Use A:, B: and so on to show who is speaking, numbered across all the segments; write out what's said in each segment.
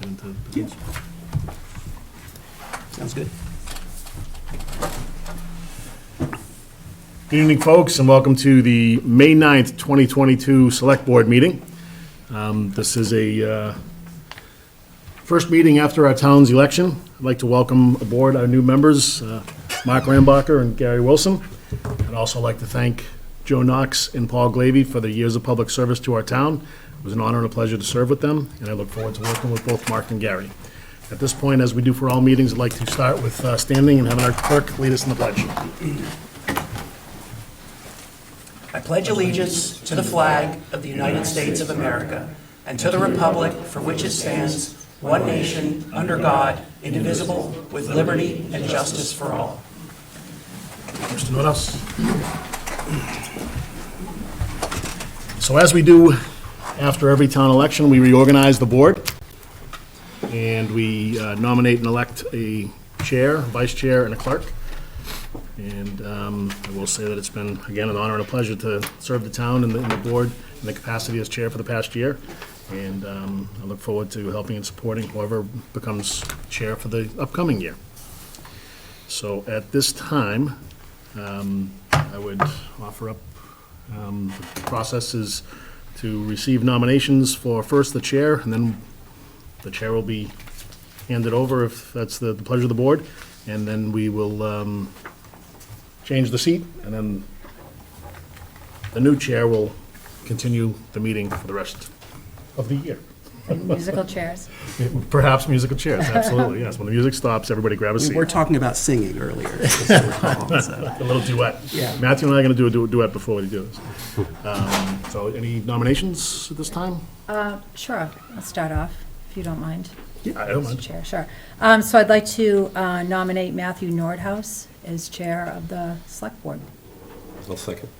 A: the bids.
B: Sounds good.
C: Good evening, folks, and welcome to the May 9th, 2022 Select Board Meeting. Um, This is a uh, first meeting after our town's election. I'd like to welcome aboard our new members, uh, Mark Rambacher and Gary Wilson. I'd also like to thank Joe Knox and Paul Glavy for their years of public service to our town. It was an honor and a pleasure to serve with them, and I look forward to working with both Mark and Gary. At this point, as we do for all meetings, I'd like to start with uh, standing and having our clerk lead us in the pledge.
D: I pledge allegiance to the flag of the United States of America and to the republic for which it stands, one nation, under God, indivisible, with liberty and justice for all.
C: Mr. Norris. So as we do after every town election, we reorganize the board, and we uh, nominate and elect a chair, vice chair, and a clerk. And um, I will say that it's been, again, an honor and a pleasure to serve the town and the and the board in the capacity as chair for the past year, and um, I look forward to helping and supporting whoever becomes chair for the upcoming year. So at this time, um, I would offer up, um, the process is to receive nominations for first the chair, and then the chair will be handed over if that's the the pleasure of the board, and then we will um, change the seat, and then the new chair will continue the meeting for the rest of the year.
E: Musical chairs.
C: Perhaps musical chairs, absolutely, yes. When the music stops, everybody grab a
B: We
C: seat.
B: were talking about singing earlier. just to recall, so.
C: A little duet.
B: Yeah.
C: Matthew and I are going to do a du- duet before we do this. Um, So any nominations at this time?
E: Sure, I'll start off, if you don't mind.
C: I don't
E: Mr.
C: mind.
E: Chair, sure. Um, So I'd like to uh, nominate Matthew Nordhaus as Chair of the Select Board.
A: I'll second.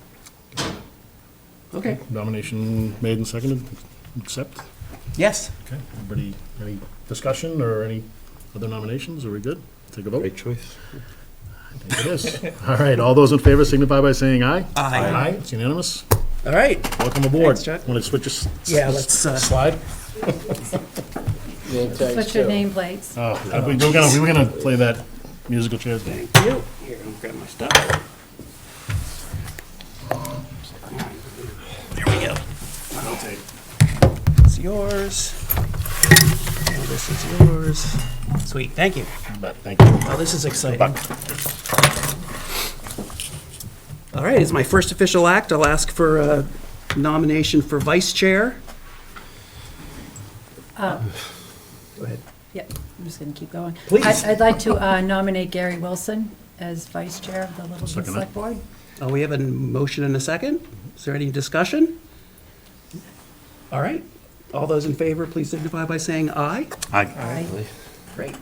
B: Okay,
C: Nomination made and seconded, accept.
B: yes.
C: Okay, everybody, any discussion or any other nominations? Are we good? Take a vote.
A: Great choice.
C: I think It is. All right, all those in favor signify by saying aye.
B: Aye.
C: Aye, it's unanimous.
B: All right,
C: Welcome aboard.
B: Thanks, Chuck.
C: Want to switch us?
B: Yeah, let's, uh,
C: Slide?
E: Switch your nameplates.
C: Oh, we were gonna, we were gonna play that musical chairs game.
B: thank you. Here, I'll grab my stuff. There we go. It's yours. And this is yours. Sweet, thank you.
C: But thank you.
B: Well, this is exciting. All right, it's my first official act. I'll ask for a nomination for vice chair.
E: Uh,
B: Go ahead.
E: Yep, I'm just going to keep going.
B: Please.
E: I'd- I'd like to uh, nominate Gary Wilson as Vice Chair of the Littleton
C: Second that.
E: Select Board.
B: Uh, We have a motion and a second. Is there any discussion? All right, all those in favor, please signify by saying aye.
C: Aye.
E: Aye.
B: Great.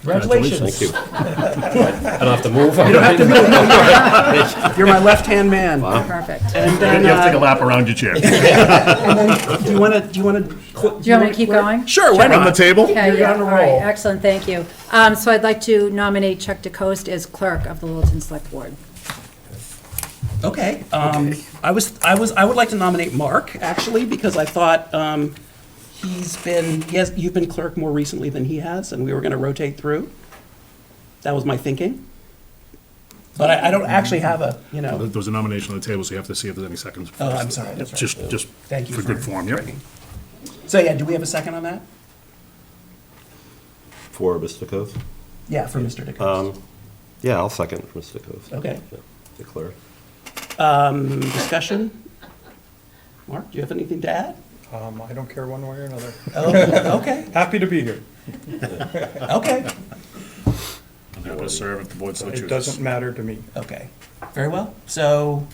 C: Congratulations.
B: Congratulations.
A: Thank you. I don't have to move. You don't have to.
B: You're my left-hand man.
E: Perfect.
B: And
C: You
B: then,
C: have to take a
B: uh,
C: lap around your chair.
B: do you want to, do you want to?
E: Do you want me to keep going?
B: Sure, why
C: On the
B: not?
C: table?
E: Okay,
B: You're
E: yeah,
B: on a
E: all right,
B: roll.
E: excellent, thank you. Um, So I'd like to nominate Chuck DeCoste as Clerk of the Littleton Select Board.
B: Okay. Um, I was, I was, I would like to nominate Mark, actually, because I thought, um, he's been, he has, you've been clerk more recently than he has, and we were gonna rotate through. That was my thinking. But I, I don't actually have a, you know,
C: There was a nomination on the table, so you have to see if there's any seconds.
B: oh, I'm sorry, that's right.
C: Just, just
B: Thank you
C: for good
B: for
C: form, yep.
B: bringing- So, yeah, do we have a second on that?
A: For Mr. Coth?
B: Yeah, for Mr. DeCoste.
A: Yeah, I'll second for Mr. Coth.
B: Okay.
A: Yeah, The clerk.
B: Um, discussion? Mark, do you have anything to add?
F: Um, I don't care one way or another.
B: Oh, okay,
F: Happy to be here.
B: okay,
C: I'm happy to serve if the board so
F: It
C: chooses.
F: doesn't matter to me.
B: okay. Very well. So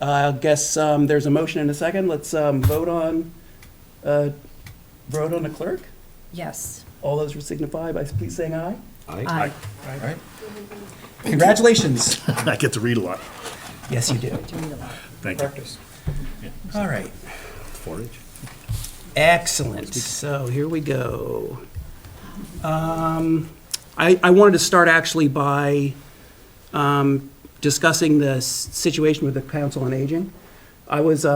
B: I guess um, there's a motion and a second. Let's um, vote on, uh, vote on the clerk.
E: Yes.
B: All those who signify by please saying aye.
A: Aye.
E: Aye.
B: All right. Congratulations.
C: I get to read a lot.
B: Yes, you do.
E: Do you need a lot?
C: Thank you.
F: Practice.
B: All right.
A: Forage.
B: Excellent. So here we go. Um, I, I wanted to start actually by um, discussing the s- situation with the Council on Aging. I was, uh,